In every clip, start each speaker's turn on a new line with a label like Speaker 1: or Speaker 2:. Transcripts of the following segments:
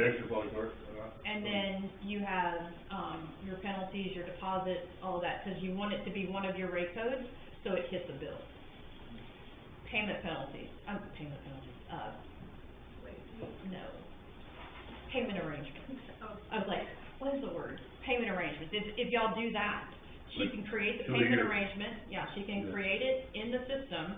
Speaker 1: uh,
Speaker 2: And then you have, um, your penalties, your deposits, all of that, because you want it to be one of your rate codes, so it hits a bill. Payment penalties, um, payment penalties, uh, no. Payment arrangements. I was like, what is the word? Payment arrangements. If, if y'all do that, she
Speaker 1: Like,
Speaker 2: can create the
Speaker 1: do they
Speaker 2: payment
Speaker 1: get-
Speaker 2: arrangement, yeah, she can
Speaker 1: Yeah.
Speaker 2: create it in the system.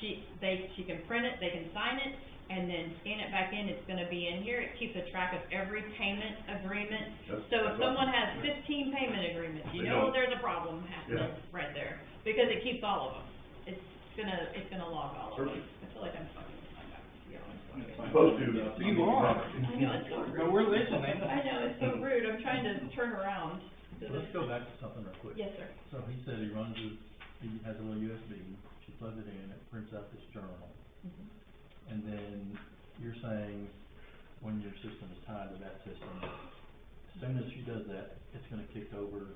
Speaker 2: She, they, she can print it, they can sign it, and then scan it back in, it's gonna be in here. It keeps a track of every payment agreement.
Speaker 1: That's-
Speaker 2: So if
Speaker 1: that's
Speaker 2: someone
Speaker 1: awesome.
Speaker 2: has fifteen payment agreements, you
Speaker 1: They
Speaker 2: know
Speaker 1: don't-
Speaker 2: there's a problem happening
Speaker 1: Yeah.
Speaker 2: right there, because it keeps all of them. It's gonna, it's gonna log all of them.
Speaker 1: Perfect.
Speaker 2: I feel like I'm fucking with my back, to be honest with you.
Speaker 1: Supposed to.
Speaker 3: You are.
Speaker 2: I know, it's so rude.
Speaker 3: But we're listening.
Speaker 2: I know, it's so rude, I'm trying to turn around. to
Speaker 4: So let's
Speaker 2: the-
Speaker 4: go back to something real quick.
Speaker 2: Yes, sir.
Speaker 4: So he said he runs his, he has a little USB, she plugs it in, it prints out this journal.
Speaker 2: Mhm.
Speaker 4: And then you're saying when your system is tied to that system, as soon as she does that, it's gonna kick over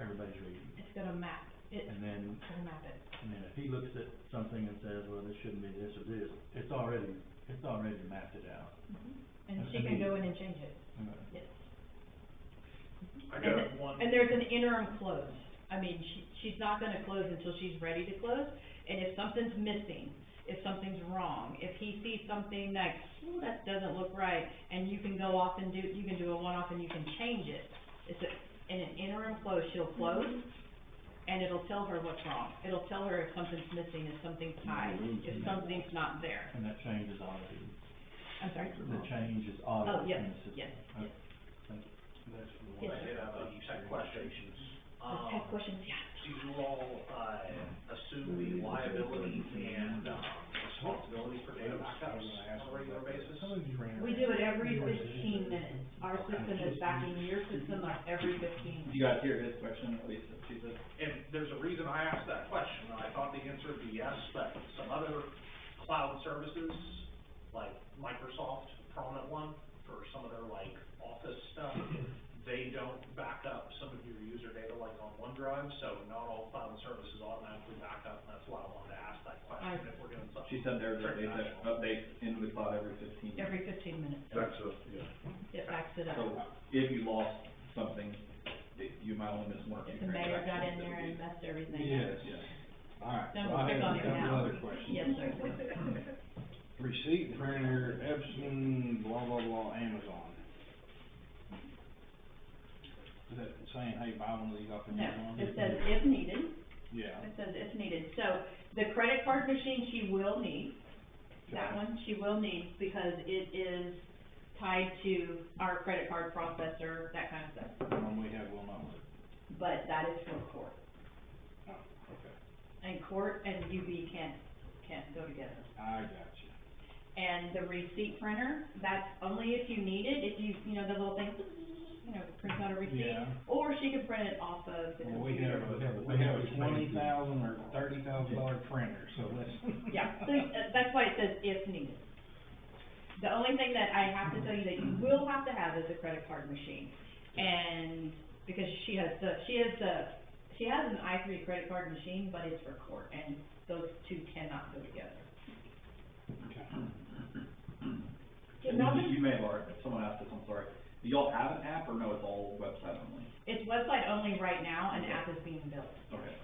Speaker 4: everybody's reading.
Speaker 2: It's gonna map, it's
Speaker 4: And then,
Speaker 2: gonna map it.
Speaker 4: and then if he looks at something and says, well, this shouldn't be this or this, it's already, it's already mapped it out.
Speaker 2: And
Speaker 1: Mm-hmm.
Speaker 4: I-
Speaker 2: she
Speaker 4: I
Speaker 2: can
Speaker 4: mean-
Speaker 2: go in and change it,
Speaker 4: Okay.
Speaker 2: yes.
Speaker 1: I
Speaker 2: And
Speaker 1: got
Speaker 2: th-
Speaker 1: one.
Speaker 2: And there's an interim close. I mean, she, she's not gonna close until she's ready to close. And if something's missing, if something's wrong, if he sees something that, ooh, that doesn't look right, and you can go off and do, you can do a one-off and you can change it. It's a, in an interim close, she'll close, and it'll tell her what's wrong. It'll tell her if something's missing, if something's high, if something's not there.
Speaker 4: And that change is audited.
Speaker 2: I'm sorry?
Speaker 4: The change is
Speaker 2: Oh,
Speaker 4: audited
Speaker 2: yes,
Speaker 4: in the system.
Speaker 2: yes, yes.
Speaker 4: Okay, thank you.
Speaker 2: Yes,
Speaker 5: I did have a tech question.
Speaker 2: Let's
Speaker 5: Um,
Speaker 2: have questions, yeah.
Speaker 5: do you all, uh, assume the liability and, um, responsibility for data backups on a regular basis?
Speaker 6: We do it every fifteen minutes. Our system is backing your system up every fifteen minutes.
Speaker 3: You guys hear his question, at least, she said,
Speaker 5: And there's a reason I asked that question, and I thought the answer would be yes, but some other cloud services, like Microsoft, prominent one, for some of their like office stuff, they don't back up some of your user data like on OneDrive, so not all cloud services automatically back up, and that's why I wanted to ask that question, if we're doing something.
Speaker 3: she said there's updates, that- updates in the cloud every fifteen. minutes.
Speaker 2: Every fifteen minutes,
Speaker 1: That's a, yeah.
Speaker 2: it backs it up.
Speaker 3: So if you lost something, that you might only miss one or two
Speaker 2: If
Speaker 3: transactions.
Speaker 2: the mayor got in
Speaker 3: that
Speaker 2: there
Speaker 3: would
Speaker 2: and
Speaker 3: be-
Speaker 2: messed everything up.
Speaker 7: Yes,
Speaker 3: Yeah.
Speaker 7: all right.
Speaker 2: Don't
Speaker 7: so
Speaker 2: pick
Speaker 7: I have
Speaker 2: on
Speaker 7: a
Speaker 2: it
Speaker 7: couple
Speaker 2: now.
Speaker 7: other questions.
Speaker 2: Yes, sir.
Speaker 7: Receipt printer, Epson, blah, blah, blah, Amazon. Is that saying, hey, buy one of these off of
Speaker 6: No,
Speaker 7: Amazon?
Speaker 6: it says if needed,
Speaker 7: Yeah.
Speaker 6: it says if needed. So the credit card machine she will need, that
Speaker 7: okay.
Speaker 6: one she will need because it is tied to our credit card processor, that kind of stuff.
Speaker 7: And we have one of them.
Speaker 6: But that is for court.
Speaker 7: Oh, okay.
Speaker 6: And court and UV can't, can't go together.
Speaker 7: I got you.
Speaker 6: And the receipt printer, that's only if you need it, if you, you know, the little thing, you know, prints out a receipt.
Speaker 7: Yeah.
Speaker 6: Or she can print it off of the
Speaker 7: Well, we
Speaker 6: computer.
Speaker 7: have a, we have a twenty thousand or thirty thousand dollar printer, so let's.
Speaker 6: Yeah, so, uh, that's why it says if needed. The only thing that I have to tell you that you will have to have is a credit card machine. And, because she has the, she has the, she has an I three credit card machine, but it's for court, and those two cannot go together.
Speaker 3: And then you- you may have already, someone asked this, I'm sorry, do y'all have an app, or no, it's all website only?
Speaker 6: It's website only right now, an app is being built,
Speaker 3: Okay.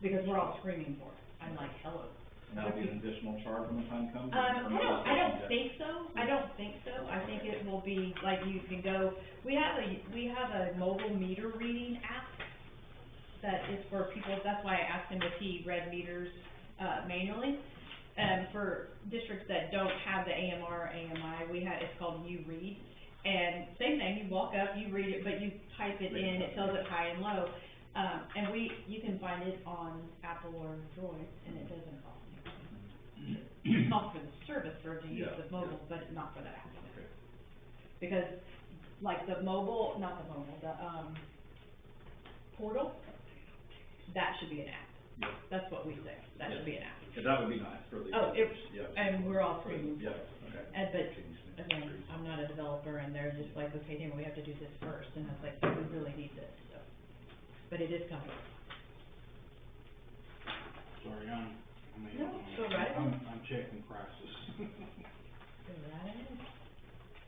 Speaker 6: because we're all screaming for it. I'm like, hello.
Speaker 3: And that'll be an additional charge when the time comes?
Speaker 6: Um,
Speaker 3: or- or
Speaker 6: I
Speaker 3: no,
Speaker 6: don't,
Speaker 3: that's
Speaker 6: I
Speaker 3: something
Speaker 6: don't
Speaker 3: that-
Speaker 6: think so, I don't think so, I think it will be, like, you can go, we have a, we have a mobile meter reading app that is for people, that's why I asked him if he read meters, uh, manually. Um, for districts that don't have the AMR, AMI, we have, it's called You Read, and same thing, you walk up, you read it, but you type it in, it tells it high and low. Um, and we, you can find it on Apple or Android, and it doesn't cost anything. It's not for the service or to use the mobile, but not for the app. Because, like, the mobile, not the mobile, the, um, portal, that should be an app.
Speaker 3: Yeah.
Speaker 6: That's what we say, that should be an app.
Speaker 3: Yeah, that would be nice for the.
Speaker 6: Oh, it-
Speaker 3: Yeah.
Speaker 6: And we're all screaming,
Speaker 3: Yeah, okay.
Speaker 6: and, but, again, I'm not a developer, and they're just like, okay, then we have to do this first, and I was like, we really need this, so. But it is coming.
Speaker 7: Sorry, I'm, I mean,
Speaker 6: No, go right
Speaker 7: I'm, I'm checking prices.
Speaker 6: Right.